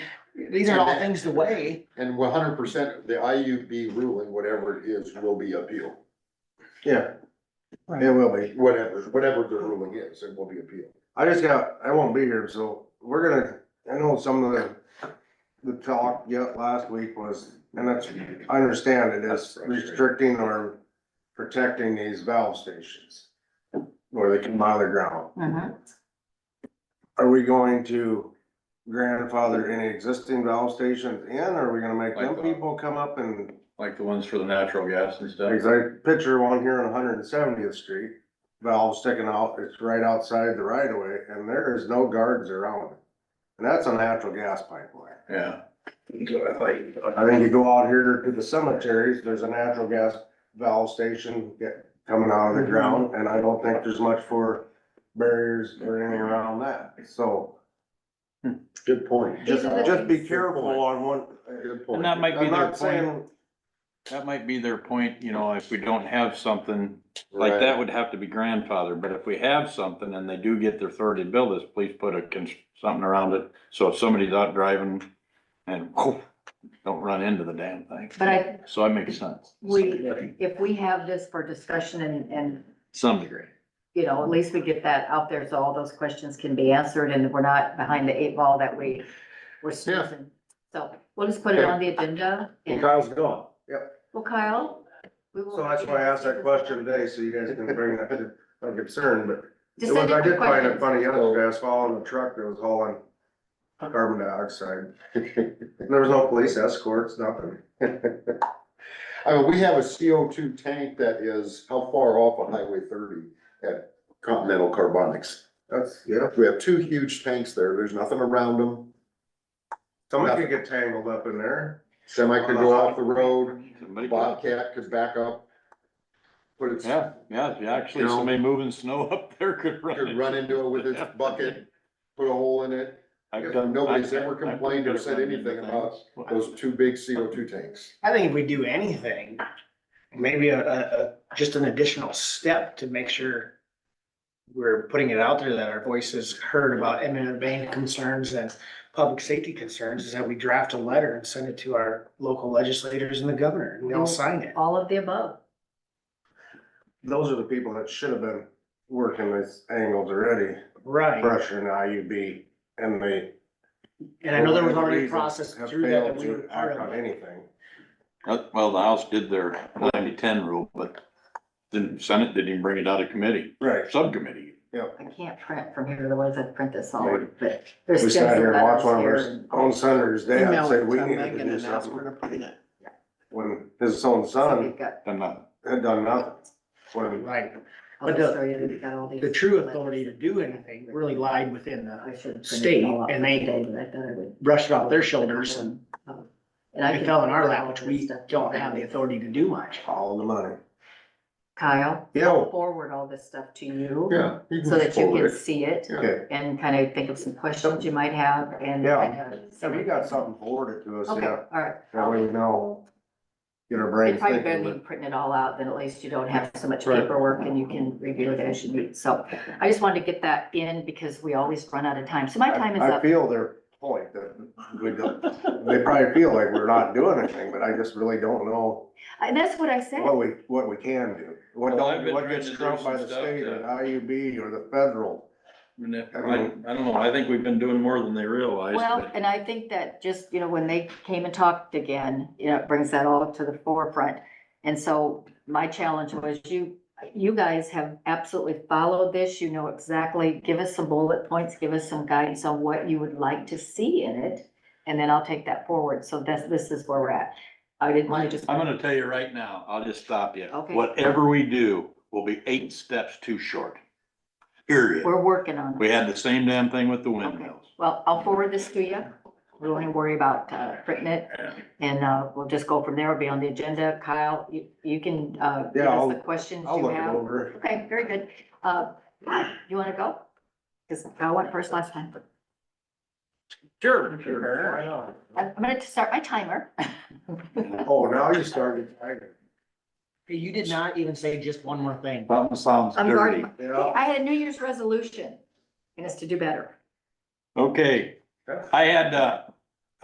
these are all things to weigh. And one hundred percent, the IUB ruling, whatever it is, will be appealed. Yeah, Right. it will be. Whatever, whatever the ruling is, it will be appealed. I just got, I won't be here, so we're gonna, I know some of the, the talk yet last week was, and that's, I understand it is restricting or protecting these valve stations where they come out of the ground. Uh-huh. Are we going to grandfather any existing valve stations in, or are we gonna make them people come up and, like the ones for the natural gas and stuff. like, I picture one here on Hundred and Seventieth Street, valve sticking out, it's right outside the right of way, and there is no guards around it. And that's a natural gas pipeline. Yeah, I think you go out here to the cemeteries, there's a natural gas valve station get, coming out of the ground, and I don't think there's much for barriers or anything around that, so. Good point. Just, These are the just be things- careful on one, Good point. and that might be I'm their not point, saying, that might be their point, you know, if we don't have something, like that would have to be grandfathered, but if we have something and they do get their authority to build this, please put a, cons- something around it, so if somebody's out driving and don't run into the damn thing, But I, so that makes sense, we, if we have this for discussion and, and, to some degree. you know, at least we get that out there so all those questions can be answered and we're not behind the eight ball that we were snoozing. So we'll just put it on the agenda. and- Kyle's gone. Well, Kyle, we will. so that's why I asked that question today, so you guys can bring that to my concern, but. Just It was- send in I your did find it questions. funny yesterday, I was following a truck that was hauling carbon dioxide, there was no police escorts, nothing. I mean, we have a CO two tank that is how far off on Highway thirty at Continental Carbonics. That's, yeah, We have two huge tanks there. There's nothing around them. somebody could get tangled up in there. Semi could go off the road, Somebody could- Bobcat could back up. But it's, Yeah, yeah, if you actually, You know? somebody moving snow up there could run. could run into it with its bucket, put a hole in it. I've done- Nobody's I've- ever I've done complained or said run into anything things. Those two big CO two tanks. I think if we do anything, maybe a, a, a, just an additional step to make sure we're putting it out there that our voice is heard about eminent domain concerns and public safety concerns is that we draft a letter and send it to our local legislators and the governor and Oh. they'll sign it. All of the above. Those are the people that should have been working these angles already, Right. pressuring IUB, and they. And I know there was for whatever already a reason, process have through that failed that we to were part act of. On anything. Uh, Well, the House did their ninety-ten rule, but the Senate didn't even bring it out of committee, Right. subcommittee. I can't print from here, otherwise I'd print this all, Right. but there's. We stems sat here and and watched one of letters our here. own senators, they had Email said, it we to need to Megan do and ask something. her to put it in. When his own So son we've got- And uh, had done nothing, when Right. I'll But just the- show you that we've got all these The true authority to do anything really lied within the, I should print it state, all out and they- today, but I thought I would- brushed it off their shoulders and And I it can- fell in our lap, which we don't have the authority to do much. all the money. Kyle, Yeah. forward all this stuff to you. Yeah. So that you can see it Okay, and kind of think of some questions you might have and. Yeah. kind of- so we got something forwarded to us, Okay, yeah, all right. that way we know, get our brains It's probably better thinking. than printing it all out, then at least you don't have so much Right. paperwork and you can review it as you need. So I just wanted to get that in because we always run out of time. So my time is I I up. feel their point that we don't, they probably feel like we're not doing anything, but I just really don't know And that's what I said. what we, what we can do. What Well, I've don't, been what trying gets to do trumped by some the stuff state or that- the IUB or the federal. I, I don't know, I think we've been doing more than they realize. Well, but- and I think that just, you know, when they came and talked again, you know, it brings that all to the forefront. And so my challenge was you, you guys have absolutely followed this. You know exactly, give us some bullet points, give us some guidance on what you would like to see in it. And then I'll take that forward. So that's, this is where we're at. I didn't want to just. I'm gonna tell you right now, I'll just stop you. Okay. Whatever we do will be eight steps too short. Period. We're working on it. We had the same damn thing with the windmills. Well, I'll forward this to you. We don't even worry about uh, printing it. Yeah. And uh, we'll just go from there. It'll be on the agenda. Kyle, you, you can uh, give Yeah, I'll- us the questions I'll you look it have. over. Okay, very good. Uh, You want to go? Because Kyle went first last time. Sure. Sure. I'm going to start my timer. Oh, now you started. You did not even say just one more thing. Something sounds I'm dirty. guarding. Yeah, I had a New Year's resolution and it's to do better. Okay, I had, uh,